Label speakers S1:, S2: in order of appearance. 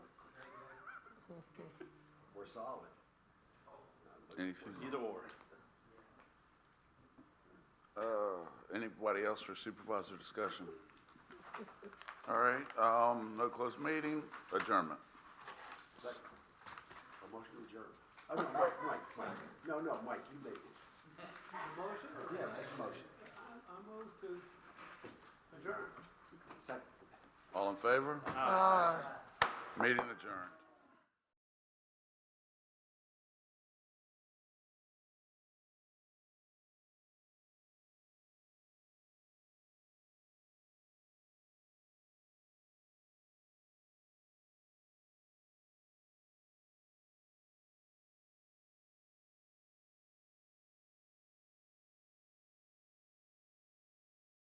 S1: We're solid.
S2: Anything?
S3: Either or.
S2: Uh, anybody else for supervisor discussion? All right, um, no closed meeting, adjournment.
S1: Second. A motion to adjourn. Oh, no, Mike, Mike, Mike. No, no, Mike, you made it.
S4: Motion or?
S1: Yeah, make a motion.
S4: I I move to adjourn.
S1: Second.
S2: All in favor? Aye. Meeting adjourned.